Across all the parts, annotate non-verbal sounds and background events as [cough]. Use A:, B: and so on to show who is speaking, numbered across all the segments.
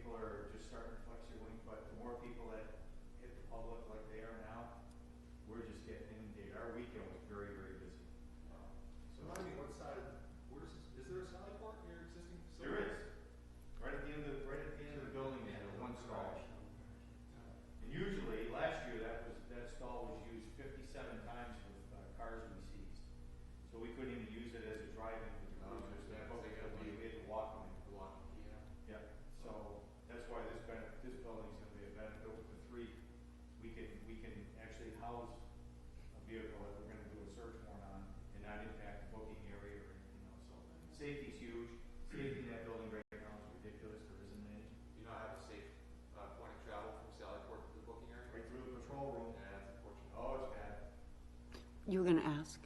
A: starting to flex your wing, but the more people that hit the public like they are now, we're just getting inundated. Our weekend was very, very busy.
B: So
A: So
B: remind me, what side, where's, is there a sally port in your existing facility?
A: there is, right at the end of, right at the end of the building, there's one stall.
C: Uh,
A: And usually, last year, that was, that stall was used fifty-seven times with uh, cars we seized. So we couldn't even use it as a drive-in for the
B: Oh, yeah, so
A: cruisers, that was,
B: they gotta be-
A: we had to walk them in.
B: Block, yeah.
A: Yeah, so that's why this benefit, this building's gonna be a benefit for three. We can, we can actually house a vehicle that we're gonna do a search warrant on and not impact the booking area or anything else. So safety's huge. Safety in that building right now is ridiculous. There isn't any.
C: You don't have a safe, uh, point of travel from Sally Port to the booking area?
A: Right through the patrol room.
C: Yeah, that's unfortunate.
A: Oh, it's bad.
D: You were going to ask?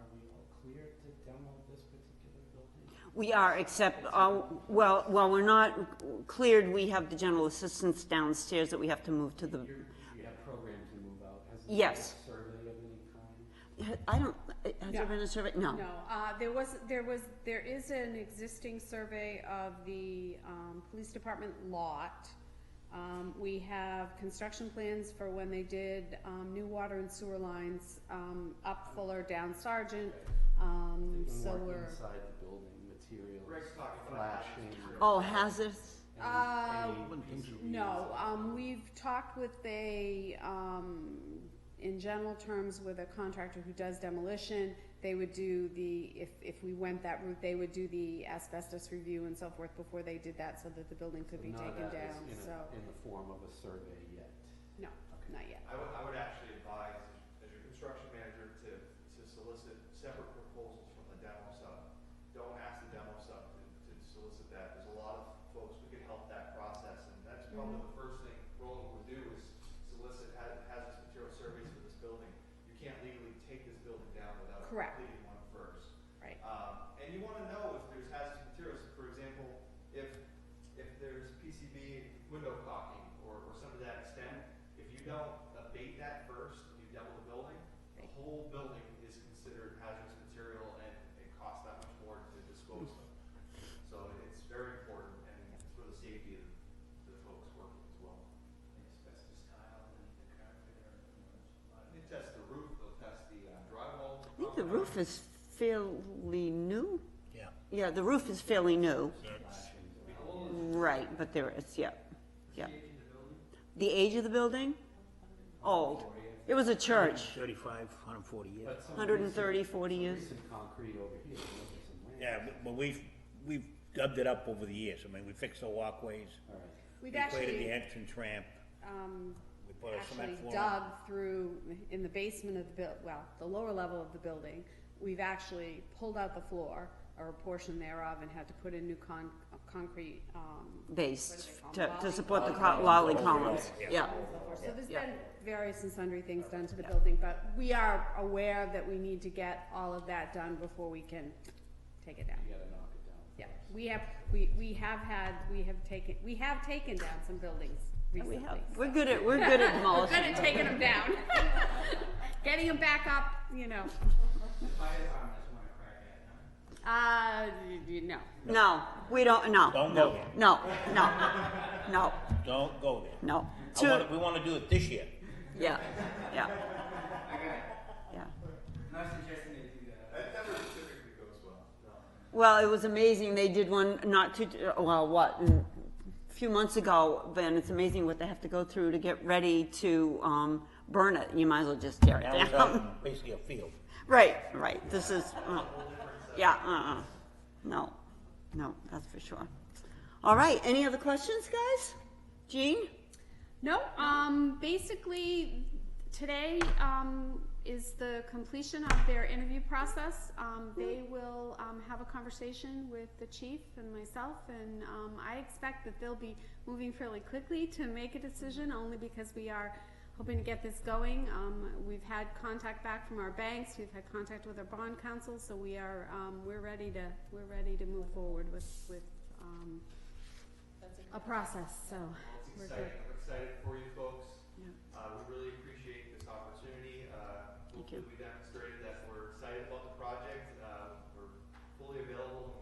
E: Are we all clear to demo this particular building?
D: We are, except, uh, well, while we're not cleared, we have the general assistance downstairs that we have to move to the,
E: You're- You have programmed to move out. Has there
D: Yes.
E: been a survey of any kind?
D: I don't, has there been a survey? No.
F: No, uh, there was, there was, there is an existing survey of the, um, police department lot. Um, we have construction plans for when they did, um, new water and sewer lines, um, up Fuller, down Sergeant, um,
E: Even
F: so
E: more
F: we're.
E: Inside the building, materials
C: Greg's talking about
E: flashing.
D: Oh, hazardous?
E: and
F: Uh,
E: any injuries.
F: No, um, we've talked with a, um, in general terms, with a contractor who does demolition. They would do the, if, if we went that route, they would do the asbestos review and so forth before they did that so that the building could
E: So
F: be
E: none of that
F: taken
E: is
F: down,
E: in a-
F: so,
E: In the form of a survey yet.
F: no, not yet.
C: I
A: I
C: would, I would
A: actually advise, as your construction manager, to, to solicit separate proposals from the demo sub. Don't ask the demo sub to, to solicit that. There's a lot of folks who can help that process, and that's
F: Mm-hmm.
C: probably the first thing Roland would do is solicit ha- hazardous material surveys for this building. You can't legally take this building down without
F: Correct.
C: completing one first.
F: Right.
C: Um, and you wanna know if there's hazardous materials, for example, if, if there's PCB window caulking or, or some of that extent, if you don't abate that first and you demo the building, the
F: Right.
C: whole building is considered hazardous material and it costs that much more to dispose of. So it's very important and it's for the safety of the folks working as well. They test Uh, the roof, they'll test the uh, drywall.
D: I think the roof is fairly new. Yeah. Yeah, the roof is fairly new. Right, but there is, yeah, yeah. The age of the building? Old. It was a church,
G: 35, 140 years.
E: But some
D: 130,
E: recent-
D: 40
E: some
D: years.
E: Recent concrete over here, look at some land.
G: Yeah, but- but we've, we've dubbed it up over the years. I mean, we fixed the walkways.
E: All right.
F: We've
G: We created the
F: actually,
G: entrance ramp.
F: um,
G: We put a
F: actually
G: cement floor.
F: dug through, in the basement of the buil, well, the lower level of the building, we've actually pulled out the floor, or a portion thereof, and had to put in new con, uh, concrete, um,
D: based
F: What do they
D: to,
F: call them?
D: to support the col- lolly columns, yeah.
F: and so forth. So there's
D: Yeah.
F: been various and sundry things done to the building, but we are aware that we need to get all of that done before we can take it down.
E: You gotta knock it down.
F: Yeah, we have, we, we have had, we have taken, we have taken down some buildings
D: We
F: recently.
D: have, we're good at, we're good
F: [laughs]
D: at
F: We're
D: demolishing.
F: good at taking them down. [laughs] Getting them back up, you know, uh, y- y- no.
D: No, we don't, no.
G: Don't
D: no,
G: go there.
D: No, no, no,
G: Don't go there.
D: no.
G: I
D: To,
G: wanna- We want to do it this year.
D: yeah, yeah,
H: Okay,
D: yeah.
H: not suggesting they do that.
A: That never typically goes well.
D: Well, it was amazing, they did one not too, well, what, mm, a few months ago, Ben, it's amazing what they have to go through to get ready to, um, burn it, you might as well just tear
G: Now
D: it
G: it's
D: [laughs]
G: out
D: down.
G: in uh, basically a field.
D: Right, right, this is, uh, yeah, uh-uh, no, no, that's for sure. All right, any other questions, guys? Jean?
F: No, um, basically, today, um, is the completion of their interview process. Um, they will, um, have a conversation with the chief and myself, and, um, I expect that they'll be moving fairly quickly to make a decision, only because we are hoping to get this going. Um, we've had contact back from our banks, we've had contact with our bond council, so we are, um, we're ready to, we're ready to move forward with, with, um, a process, so.
C: Well, it's
F: we're good.
C: exciting, I'm excited for you folks.
F: Yeah.
C: Uh, we really appreciate this opportunity, uh, hopefully we demonstrated that we're excited about the Uh, project, uh, we're fully available when